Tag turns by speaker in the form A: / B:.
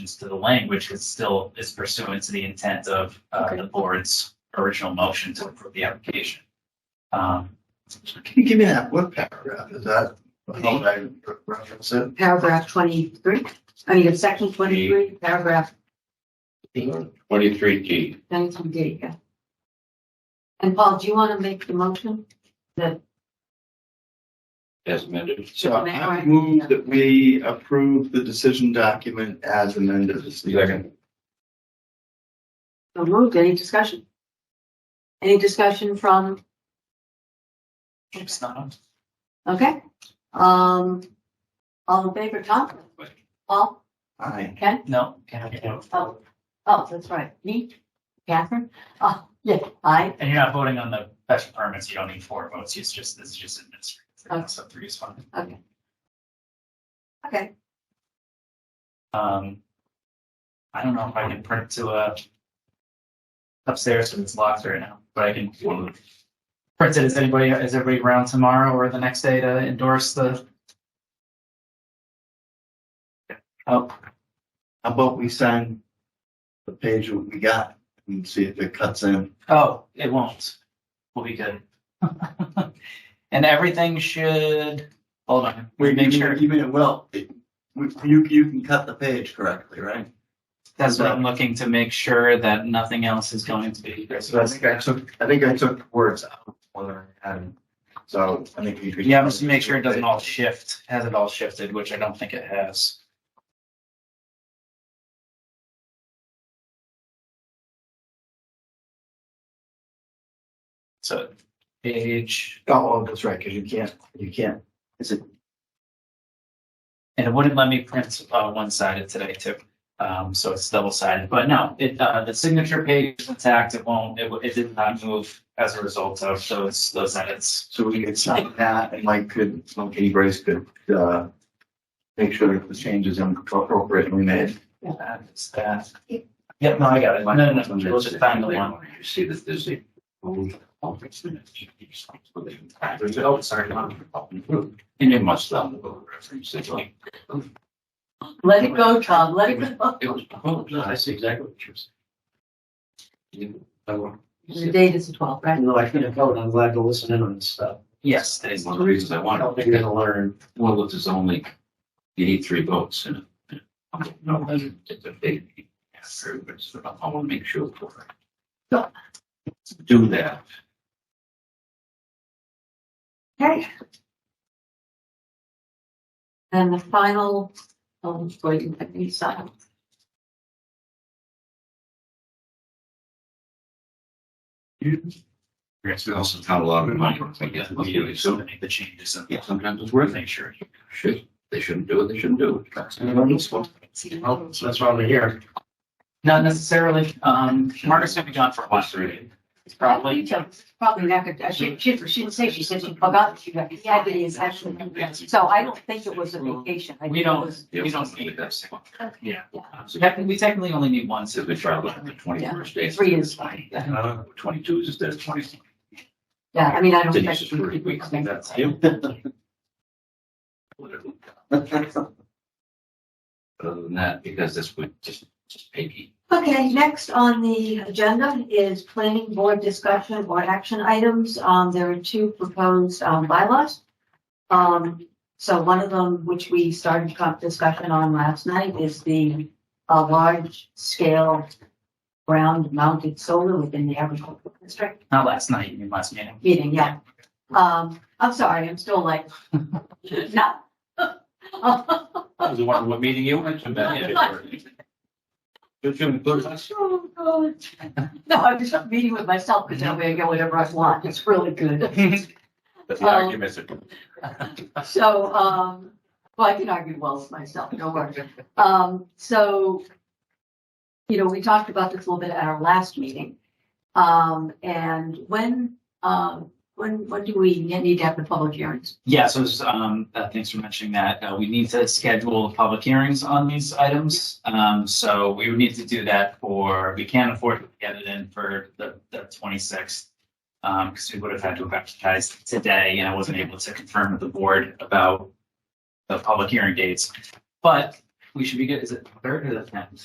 A: to the language, it still is pursuant to the intent of uh,
B: Okay.
A: the board's original motion to approve the application. Um,
C: Can you give me that, what paragraph is that? How would I reference it?
B: Paragraph twenty-three, I mean, the section twenty-three, paragraph
D: Twenty-three D.
B: nineteen D, yeah. And Paul, do you want to make the motion?
D: as amended.
C: So I
B: Alright.
C: move that we approve the decision document as amended.
D: Second.
B: So moved, any discussion? Any discussion from,
A: It's not,
B: okay, um, all in favor, Tom? Paul?
C: Aye.
B: Ken?
A: no, can I-
B: Oh, oh, that's right, me? Catherine? Oh, yeah, I,
A: and you're not voting on the special permits, you don't need four votes, it's just, it's just
B: Okay.
A: administrative, so three is fine.
B: okay,
A: Um, I don't know if I can print to a upstairs because it's locked right now, but I can print it. Is anybody, is everybody around tomorrow or the next day to endorse the? Oh,
C: How about we sign the page what we got and see if it cuts in?
A: oh, it won't. We'll be good. And everything should, hold on, we make sure,
C: You mean it will. It- we- You, you can cut the page correctly, right?
A: that's what I'm looking to make sure that nothing else is going to be.
C: So I think I took, I think I took words out more than I had. So I think you could.
A: Yeah, just to make sure it doesn't all shift, has it all shifted, which I don't think it has. So page,
C: Oh, that's right, because you can't, you can't. Is it,
A: and it wouldn't let me print uh, one sided today too. Um, so it's double sided, but no, it, uh, the signature page is intact. It won't, it, w- it did not move as a result of those, those edits.
C: so we could sign that and Mike could, Monkey Grace could, uh, make sure that the changes are appropriately made.
A: That is that. Yep, no, I got it. No, no, no, we'll just find the one.
D: You see that there's a. Oh, sorry. And it must have the reference. It's like,
B: let it go, Tom, let
D: It was,
B: it go.
D: it was proposed. I see exactly what you're saying. Oh, I want.
B: The date is the twelfth, right?
E: No, I couldn't vote. I'm glad to listen in on this stuff.
A: Yes, that
D: It's
A: is.
D: one of the reasons I
E: I
D: want
E: don't
D: to
E: think they're gonna learn.
D: Well, if there's only, you need three votes in it. No, that's, that's a big, yes, everybody's, I want to make sure for it. Do that.
B: Okay. And the final, um, waiting, I think, sign.
D: Yes, we also count a lot of money, I guess,
A: Yes, we do, so many of the changes and
D: yeah, sometimes it's worth it,
A: make sure.
D: should, they shouldn't do it, they shouldn't do it. That's-
E: Well, so that's why we're here.
A: Not necessarily, um, Margaret's gonna be gone for a while. It's probably,
B: Probably not good, I should, she, she didn't say, she said she forgot, she got, yeah, it is actually, so I don't think it was a vacation. I think
A: we
B: it
A: don't,
B: was-
D: Yeah,
A: we don't
D: something
A: need
D: like
A: this.
D: that.
A: Yeah.
B: Yeah.
A: So technically- We technically only need one,
D: So
A: so
D: we try to look at the twenty-first day.
B: Three is
D: fine. Uh, Twenty-two is instead of twenty.
B: Yeah, I mean, I don't
D: Denise is
B: think.
D: pretty weak, I think
B: we-
D: that's him. Other than that, because this would just, just Peggy.
B: Okay, next on the agenda is planning board discussion or action items. Um, there are two proposed, um, bylaws. Um, so one of them, which we started co- discussion on last night, is the, uh, large scale ground mounted solar within the agricultural district
A: not last night, you mean last meeting.
B: meeting, yeah. Um, I'm sorry, I'm still like, no.
D: Was the one, what meeting you went to? You should include us.
B: Oh, God. No, I'm just meeting with myself because I'm gonna get whatever I want. It's really good.
D: That's
B: the Um,
D: argument.
B: So, um, well, I can argue well with myself, no worries. Um, so, you know, we talked about this a little bit at our last meeting. Um, and when, um, when, when do we need to have the public hearings?
A: Yeah, so, it's, um, uh, thanks for mentioning that. Uh, we need to schedule the public hearings on these items. Um, so we would need to do that for, we can't afford to get it in for the, the twenty-sixth. Um, because we would have had to have advertised today and I wasn't able to confirm with the board about the public hearing dates. But we should be good, is it third or the tenth?